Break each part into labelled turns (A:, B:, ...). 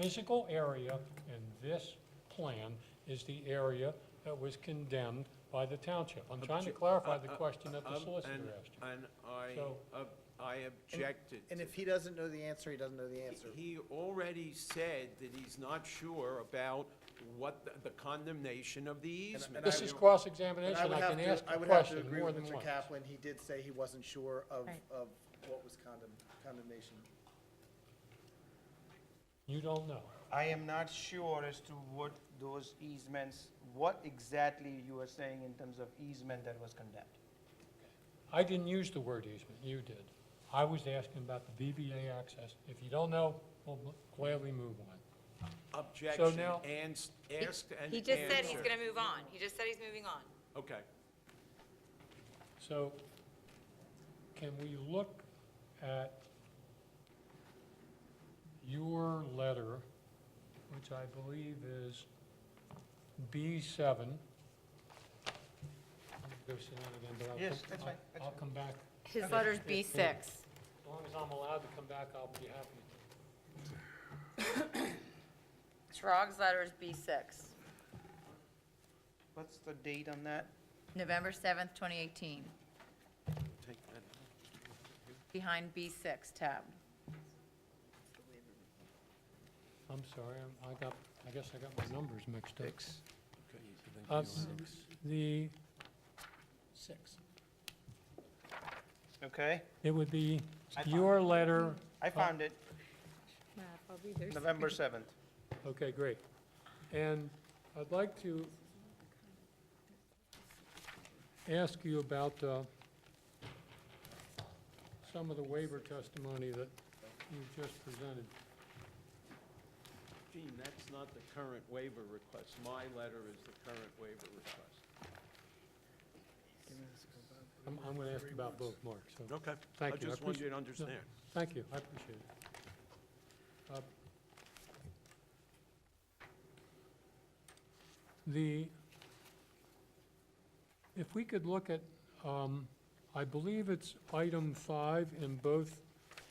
A: physical area in this plan is the area that was condemned by the township. I'm trying to
B: Obje-
A: clarify the
B: uh, uh,
A: question that the
B: Um,
A: solicitor
B: and-
A: asked you.
B: And I,
A: So-
B: ob- I objected
C: And
B: to
C: if he doesn't know the answer, he doesn't know the answer.
B: He already said that he's not sure about what the- the condemnation of the
C: And I-
B: easement.
C: and
A: This is
B: You-
C: And
A: cross-examination,
C: would
A: I
C: have
A: can
C: to-
A: ask
C: I
A: a
C: would have to
A: question
C: agree
A: more
C: with
A: than
C: Mr.
A: once.
C: Kaplan, he did say he wasn't sure of,
D: Right.
C: of what was condemn, condemnation.
A: You don't know.
E: I am not sure as to what those easements, what exactly you are saying in terms of easement that was condemned.
A: I didn't use the word easement, you did. I was asking about the BBA access. If you don't know, we'll gladly move on.
B: Objection,
A: now-
B: and, s-
D: He-
B: asked and
D: He just said he's
B: answered.
D: gonna move on. He just said he's moving on.
B: Okay,
A: So can we look at your letter, which I believe is B7? Let me Go sit down again, but I'll.
E: Yes,
A: come-
E: that's
A: I'll-
E: fine, that's
A: I'll
E: fine.
A: come back.
F: His letter's
A: If-
F: B
A: if-
F: six.
A: As long as I'm allowed to come back, I'll be happy to.
F: Trog's letter is B six,
E: What's the date on that?
F: November seventh, twenty eighteen,
B: take that.
F: behind B six tab.
A: I'm sorry, I'm- I got, I guess I got my numbers mixed up.
B: Okay.
A: Uh, The,
E: Okay,
A: it would be
E: I found
A: your letter,
E: I found it, November 7th.
A: okay, great. And I'd like to ask you about uh, some of the waiver testimony that you just presented.
B: Gene, that's not the current waiver request. My letter is the current waiver request.
A: I'm, I'm going to ask about both, Mark, so,
B: Okay.
A: Thank
B: I
A: you. I
B: just want
A: appreciate-
B: you to understand.
A: thank you, I appreciate it. Uh, The, if we could look at, um, I believe it's item five in both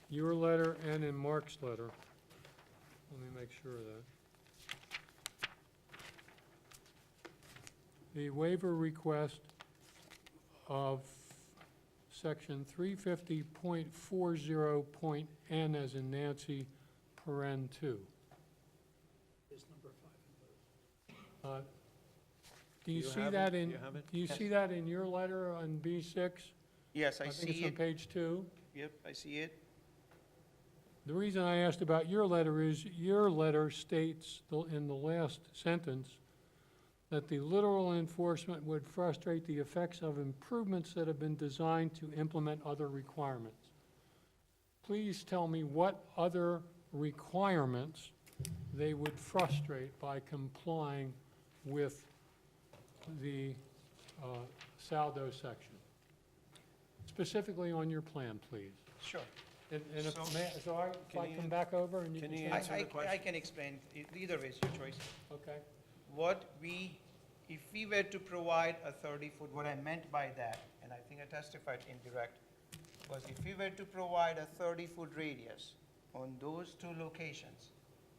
A: your letter and in Mark's letter. Let me make sure of that. The waiver request of section three fifty point four zero point N as in Nancy, paren two. Is number five in Uh, Do you
B: Do you
A: see
B: have it?
A: that
B: Do
A: in,
B: you have it?
A: do you
E: Yes.
A: see that in your letter on B six?
E: Yes,
A: I
E: I
A: think it's
E: see
A: on
E: it,
A: page two.
E: yep, I see it.
A: The reason I asked about your letter is, your letter states the- in the last sentence that the literal enforcement would frustrate the effects of improvements that have been designed to implement other requirements. Please tell me what other requirements they would frustrate by complying with the uh, Saldo section. Specifically on your plan, please.
E: Sure.
A: And, and
E: So-
A: if, may- so I, if
B: Can
A: I
B: you-
A: come back over and you
B: can
A: can
B: you
A: say,
E: I,
B: Answer the
E: I- I
B: question.
E: can explain, E- either way, it's your choice.
A: okay,
E: What we, if we were to provide a 30-foot, what I meant by that, and I think I testified indirect, was if we were to provide a 30-foot radius on those two locations,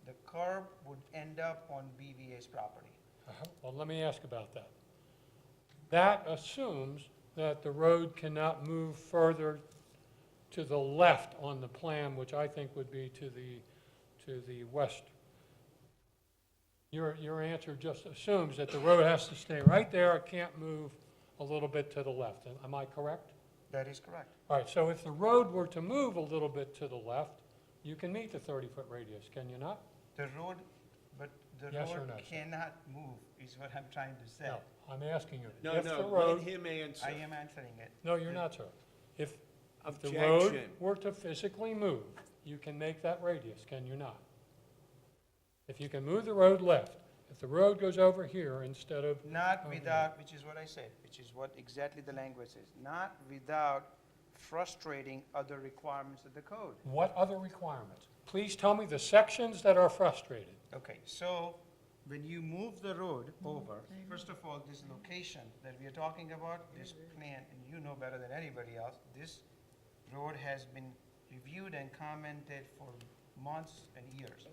E: the curb would end up on BVA's property.
A: Uh-huh. well, let me ask about that. That assumes that the road cannot move further to the left on the plan, which I think would be to the, to the west. Your, your answer just assumes that the road has to stay right there, it can't move a little bit to the left. Am I correct?
E: That is correct.
A: All right, so if the road were to move a little bit to the left, you can meet the 30-foot radius, can you not?
E: The road, but the
A: Yes or
E: road
A: no, sir?
E: cannot move, is what I'm trying to say.
A: No, I'm asking you.
B: No,
A: If the
B: no, let
A: road,
B: him answer.
E: I am answering it.
A: no, you're not, sir. If, if the road
B: Objection.
A: were to physically move, you can make that radius, can you not? If you can move the road left, if the road goes over here instead of,
E: Not
A: Okay.
E: without, which is what I said, which is what exactly the language is, not without frustrating other requirements of the code.
A: what other requirements? Please tell me the sections that are frustrated.
E: Okay, so when you move the road over, first of all, this location that we are talking about, this plan, and you know better than anybody else, this road has been reviewed and commented for months and years.